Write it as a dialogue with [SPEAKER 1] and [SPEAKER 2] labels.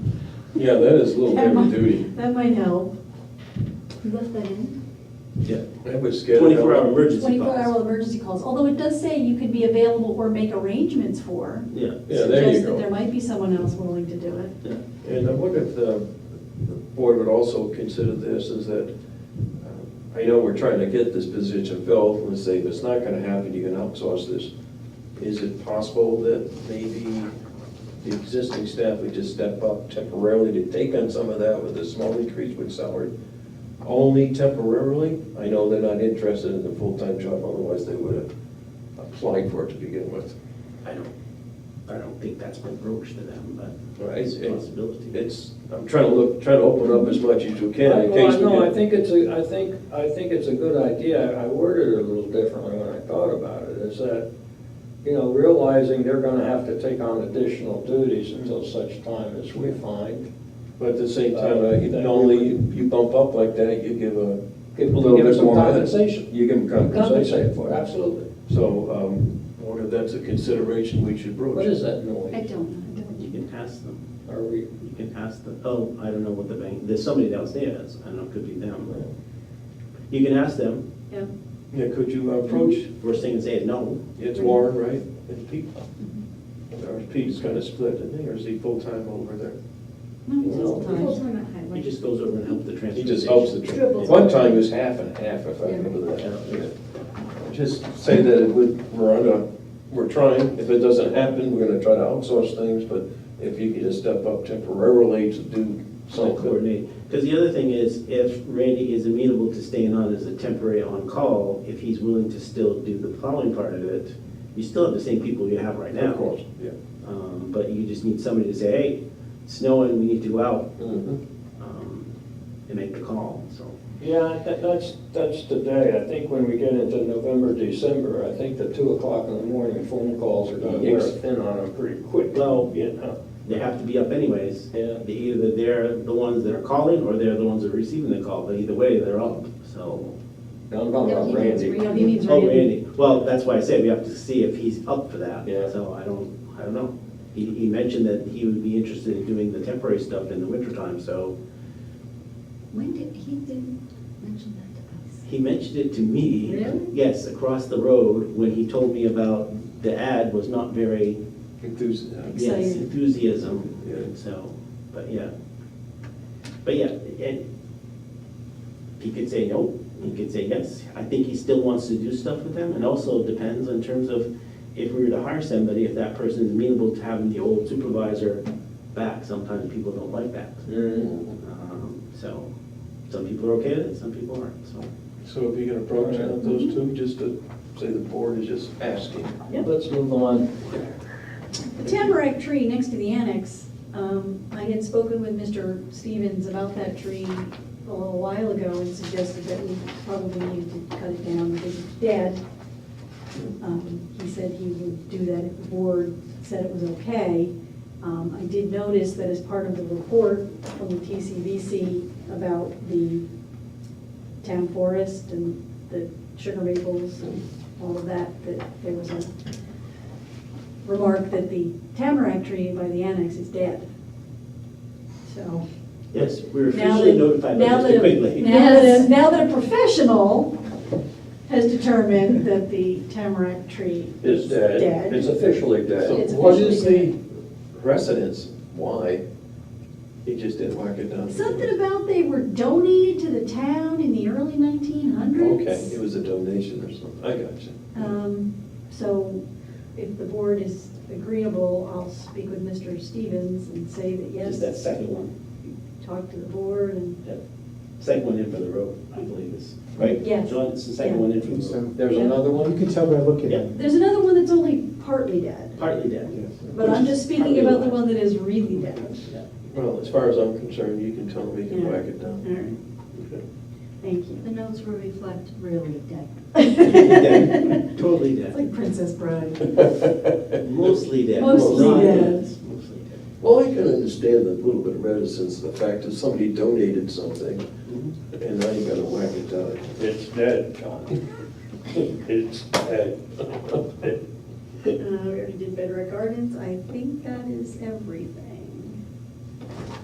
[SPEAKER 1] Yeah, that is a little heavy duty.
[SPEAKER 2] That might help.
[SPEAKER 3] You left that in?
[SPEAKER 4] Yeah,
[SPEAKER 1] That would scare the hell out
[SPEAKER 4] twenty-four hour
[SPEAKER 1] of
[SPEAKER 4] emergency
[SPEAKER 3] Twenty-four
[SPEAKER 4] calls.
[SPEAKER 3] hour emergency calls, although it does say you could be available or make arrangements for.
[SPEAKER 4] Yeah.
[SPEAKER 1] Yeah, there you
[SPEAKER 3] suggests that
[SPEAKER 1] go.
[SPEAKER 3] There might be someone else willing to do it.
[SPEAKER 4] Yeah.
[SPEAKER 1] And I wonder if the the board would also consider this is that, uh, I know we're trying to get this position filled, and say if it's not gonna happen, you can outsource this. Is it possible that maybe the existing staff would just step up temporarily to take on some of that with a small increase with salary? Only temporarily? I know they're not interested in the full-time job, otherwise they would have applied for it to begin with.
[SPEAKER 4] I don't, I don't think that's been broached to them, but
[SPEAKER 1] Right,
[SPEAKER 4] it's a
[SPEAKER 1] it's-
[SPEAKER 4] possibility.
[SPEAKER 1] It's, I'm trying to look, trying to open up as much as you can in
[SPEAKER 5] Well,
[SPEAKER 1] case we
[SPEAKER 5] No, I
[SPEAKER 1] get.
[SPEAKER 5] think it's a, I think, I think it's a good idea. I worded it a little differently when I thought about it, is that, you know, realizing they're gonna have to take on additional duties until such time as we find.
[SPEAKER 1] But at the same time, uh, you can only, you bump up like that, you give a.
[SPEAKER 5] Give-
[SPEAKER 1] a little
[SPEAKER 5] give
[SPEAKER 1] bit
[SPEAKER 5] some
[SPEAKER 1] more money.
[SPEAKER 5] compensation.
[SPEAKER 1] You give them
[SPEAKER 5] Compensate
[SPEAKER 1] compensation.
[SPEAKER 5] for it, absolutely.
[SPEAKER 1] So, um, I wonder if that's a consideration we should broach.
[SPEAKER 5] What is that
[SPEAKER 3] I
[SPEAKER 5] noise?
[SPEAKER 3] don't know, I don't.
[SPEAKER 4] You can ask them,
[SPEAKER 5] Are we,
[SPEAKER 4] you can ask the, oh, I don't know what the bank, there's somebody downstairs, I don't know, it could be them. You can ask them,
[SPEAKER 3] Yeah.
[SPEAKER 1] Yeah, could you approach,
[SPEAKER 4] worst thing to say is no.
[SPEAKER 1] it's Warren, right, and Pete? Or is Pete's kind of split, isn't he, or is he full-time over there?
[SPEAKER 3] No, he's
[SPEAKER 1] Well,
[SPEAKER 3] full time.
[SPEAKER 6] Full-time at
[SPEAKER 4] He
[SPEAKER 6] Highway.
[SPEAKER 4] just goes over and helps the transfer
[SPEAKER 1] He just helps the,
[SPEAKER 4] station.
[SPEAKER 1] tr- one time it was half and half, if I remember
[SPEAKER 4] Yeah,
[SPEAKER 1] that.
[SPEAKER 4] yeah.
[SPEAKER 1] Just say that it would- we're on a, we're trying, if it doesn't happen, we're gonna try to outsource things, but if you could just step up temporarily to do
[SPEAKER 4] So
[SPEAKER 1] something.
[SPEAKER 4] coordinate, because the other thing is, if Randy is amenable to staying on as a temporary on-call, if he's willing to still do the plowing part of it, you still have the same people you have right now.
[SPEAKER 1] Of course, yeah.
[SPEAKER 4] Um, But you just need somebody to say, hey, it's snowing, we need to go out,
[SPEAKER 1] Mhm.
[SPEAKER 4] um, and make the call, so.
[SPEAKER 5] yeah, that- that's, that's today. I think when we get into November, December, I think the two o'clock in the morning phone calls are gonna wear
[SPEAKER 1] Yes.
[SPEAKER 5] thin on them pretty
[SPEAKER 1] Mm-hmm.
[SPEAKER 5] quick.
[SPEAKER 4] Well-
[SPEAKER 5] You know?
[SPEAKER 4] They have to be up anyways.
[SPEAKER 5] Yeah.
[SPEAKER 4] They- Either they're the ones that are calling, or they're the ones that are receiving the call, but either way, they're up, so.
[SPEAKER 5] No, I'm talking
[SPEAKER 3] No,
[SPEAKER 5] about
[SPEAKER 3] he needs
[SPEAKER 5] Randy.
[SPEAKER 3] re- no, he needs
[SPEAKER 4] Oh,
[SPEAKER 3] Randy.
[SPEAKER 4] Randy, well, that's why I said we have to see if he's up for that.
[SPEAKER 5] Yeah.
[SPEAKER 4] So I don't, I don't know. He, he mentioned that he would be interested in doing the temporary stuff in the wintertime, so
[SPEAKER 6] When did, he didn't mention that to us.
[SPEAKER 4] he mentioned it to me.
[SPEAKER 6] Really?
[SPEAKER 4] Yes, across the road, when he told me about the ad was not very,
[SPEAKER 1] Enthusiasm.
[SPEAKER 4] yes,
[SPEAKER 3] Exciting.
[SPEAKER 1] Yeah.
[SPEAKER 4] enthusiasm, so, but yeah. But yeah, and he could say no, he could say yes. I think he still wants to do stuff with them, and also it depends in terms of if we were to hire somebody, if that person is amenable to having the old supervisor back, sometimes people don't like that.
[SPEAKER 5] Mm.
[SPEAKER 4] Um, So, some people are okay with it, some people aren't, so.
[SPEAKER 1] So if you can approach out
[SPEAKER 4] Mm-hmm.
[SPEAKER 1] of those two, just to say the board is just asking.
[SPEAKER 3] Yep.
[SPEAKER 5] Let's move on.
[SPEAKER 3] The tamarack tree next to the annex, um, I had spoken with Mr. Stevens about that tree a little while ago and suggested that we probably needed to cut it down because it's dead. Um, He said he would do that if the board said it was okay. Um, I did notice that as part of the report from the TCVC about the town forest and the sugar maples and all of that, that there was a remark that the tamarack tree by the annex is dead. So.
[SPEAKER 4] Yes, we were
[SPEAKER 3] now
[SPEAKER 4] officially
[SPEAKER 3] that-
[SPEAKER 4] notified by
[SPEAKER 3] now
[SPEAKER 4] Mr.
[SPEAKER 3] that a-
[SPEAKER 4] Quigley.
[SPEAKER 3] Now that, a- now that a professional has determined that the tamarack tree
[SPEAKER 1] Is
[SPEAKER 3] is
[SPEAKER 1] dead.
[SPEAKER 3] dead.
[SPEAKER 1] It's
[SPEAKER 5] officially
[SPEAKER 1] So
[SPEAKER 3] It's
[SPEAKER 1] what is the
[SPEAKER 3] officially-
[SPEAKER 1] precedence, why he just didn't whack it down?
[SPEAKER 3] Something about they were donated to the town in the early nineteen hundreds.
[SPEAKER 1] Okay, it was a donation or something, I got you.
[SPEAKER 3] Um, So if the board is agreeable, I'll speak with Mr. Stevens and say that yes,
[SPEAKER 4] Just that second one,
[SPEAKER 3] talk to the board and,
[SPEAKER 4] second one in for the road, I believe is, right?
[SPEAKER 3] Yes.
[SPEAKER 4] John, it's the second one in for the road.
[SPEAKER 5] There's another one?
[SPEAKER 7] You can tell by looking at
[SPEAKER 4] Yeah,
[SPEAKER 7] it.
[SPEAKER 3] there's another one that's only partly dead,
[SPEAKER 4] partly dead.
[SPEAKER 3] but I'm just speaking about the one that is really dead.
[SPEAKER 1] Well, as far as I'm concerned, you can tell him he can
[SPEAKER 3] Yeah.
[SPEAKER 1] whack it
[SPEAKER 3] All
[SPEAKER 1] down.
[SPEAKER 3] right,
[SPEAKER 1] Okay.
[SPEAKER 3] thank
[SPEAKER 6] The notes will reflect really dead.
[SPEAKER 3] you.
[SPEAKER 4] Totally
[SPEAKER 3] It's
[SPEAKER 4] dead.
[SPEAKER 3] like Princess Bride. Uh,
[SPEAKER 4] Mostly dead.
[SPEAKER 3] Mostly
[SPEAKER 4] Not
[SPEAKER 3] dead.
[SPEAKER 4] Mostly dead.
[SPEAKER 1] Well, I can understand the little bit of reticence, the fact that somebody donated something,
[SPEAKER 7] Mm-hmm.
[SPEAKER 1] and now you gotta whack it down.
[SPEAKER 5] It's dead, John. It's dead.
[SPEAKER 3] Uh, We already did Bedrock Gardens, I think that is everything.